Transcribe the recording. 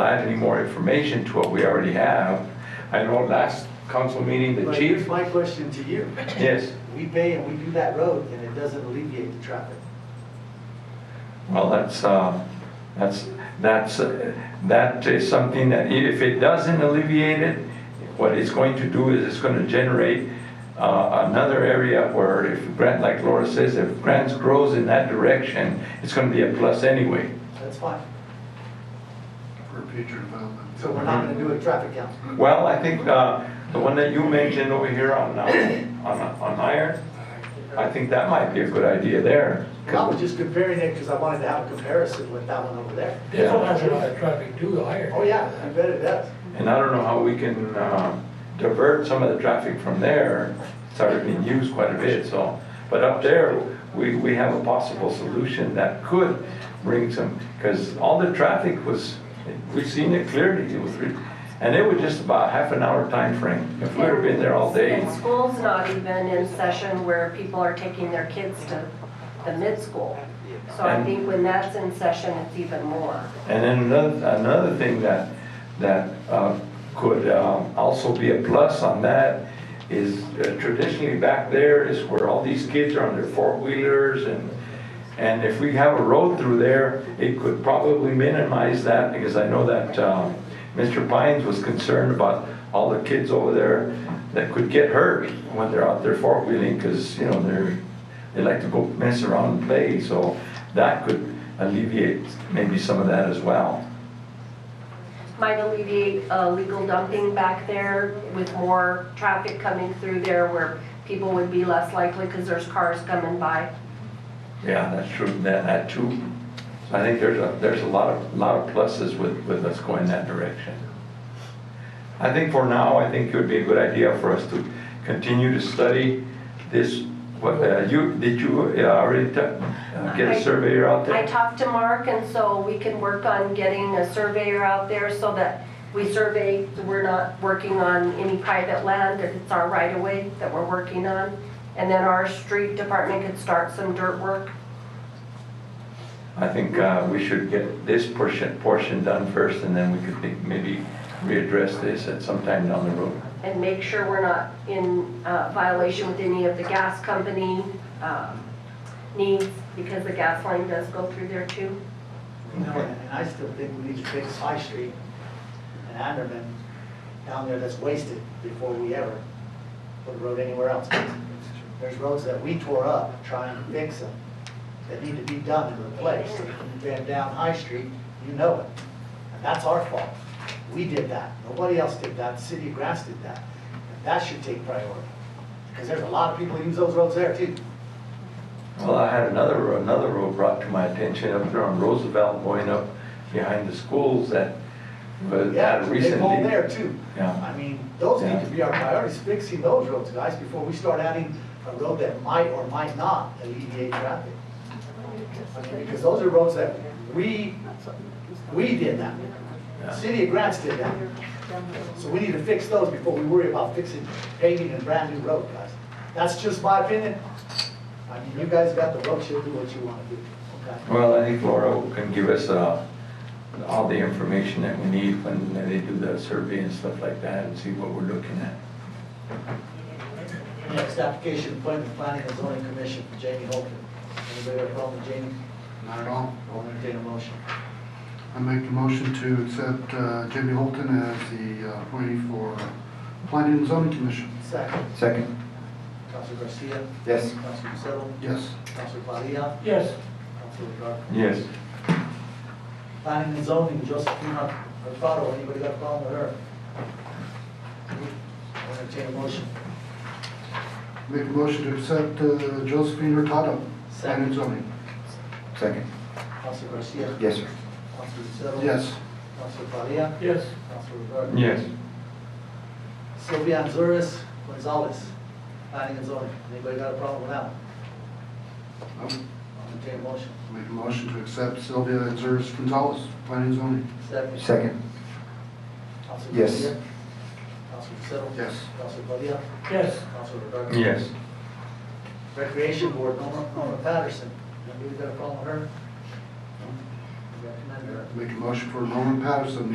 add any more information to what we already have. I know last council meeting, the But chief, here's my question to you. yes, We pay and we do that road, and it doesn't alleviate the traffic. well, that's, uh, that's, that's, uh, that is something that i- if it doesn't alleviate it, what it's going to do is it's gonna generate, uh, another area where if Grant, like Laura says, if Grants grows in that direction, it's gonna be a plus anyway. That's fine. for future development. So we're not gonna do a traffic count. Well, I think uh, the one that you mentioned over here on, uh, on on iron, I think that might be a good idea there. I was just comparing it because I wanted to have a comparison with that one over there. This one Yeah. has a lot of traffic too, the higher. Oh, yeah, I bet it does. And I don't know how we can uh, divert some of the traffic from there. It's already been used quite a bit, so. But up there, we, we have a possible solution that could bring some, because all the traffic was, we've seen it clearly, it was, re- and it was just about half an hour time frame. If we would have been there all day, And School's not even in session where people are taking their kids to the mid-school. So I And- think when that's in session, it's even more. And then another, another thing that, that uh, could um, also be a plus on that is uh, traditionally back there is where all these kids are on their four-wheelers and, and if we have a road through there, it could probably minimize that because I know that um, Mr. Pines was concerned about all the kids over there that could get hurt when they're out there four-wheeling because, you know, they're, they like to go mess around and play, so that could alleviate maybe some of that as well. Might alleviate uh, legal dumping back there with more traffic coming through there where people would be less likely because there's cars coming by. Yeah, that's true, that, that too. So I think there's a, there's a lot of, lot of pluses with, with us going that direction. I think for now, I think it would be a good idea for us to continue to study this, what, uh, you, did you uh, already ta- uh, get I- a surveyor out I there? talked to Mark and so we can work on getting a surveyor out there so that we survey, we're not working on any private land, if it's our right of way that we're working on. And then our street department could start some dirt work. I think, uh, we should get this portion, portion done first and then we could think- maybe readdress this at some time down the road. and make sure we're not in uh, violation with any of the gas company um, needs, because the gas line does go through there too. You know, and I still think we need to fix High Street and Anderman down there that's wasted before we ever put a road anywhere else. There's roads that we tore up trying to fix them that need to be done and replaced. If you've been down High Street, you know it. And that's our fault. We did that. Nobody else did that. The City of Grass did that. And That should take priority. Because there's a lot of people who use those roads there too. Well, I had another, another road brought to my attention up there on Roosevelt going up behind the schools that was Yeah, that they pulled recently. there too. Yeah. I mean, those need to be our priorities, fixing those roads, guys, before we start adding a road that might or might not alleviate traffic. I mean, because those are roads that we, we did that. City of Grants did that. So we need to fix those before we worry about fixing, paving a brand new road, guys. That's just my opinion. I mean, you guys got the road, you'll do what you wanna do, okay? Well, I think Laura can give us, uh, all the information that we need when they do the survey and stuff like that and see what we're looking at. Next application, appointment planning and zoning commission, Jamie Holton. Anybody have a problem with Jamie? Not at all. I'll entertain a motion. I make the motion to accept uh, Jamie Holton as the uh, appointee for Planning and Zoning Commission. Second, Second. Councilor Garcia, Yes. Councilor Lucero, Yes. Councilor Padilla, Yes, Councilor Garcia. Yes. Planning and zoning, Josephina Alfaro, anybody got a problem with her? I'll entertain a motion. Make a motion to accept uh, Josephine Hurtado, Planning and Zoning. Second. Councilor Garcia, Yes, sir. Councilor Lucero. Yes. Councilor Padilla, yes, Councilor Garcia. Yes. Sylvia Anzuris Gonzalez, planning and zoning. Anybody got a problem with that? one? I would I'll entertain a motion. Oh, Make a motion to accept Sylvia Anzuris Gonzalez, Planning and Zoning. Second. Second. Councilor Yes. Garcia. Councilor Lucero. Yes. Councilor Padilla. yes. Councilor Garcia. Yes. Recreation Board, Norma, Norma Patterson. Anybody got a problem with her? Recommend her. Make a motion for Norman Patterson,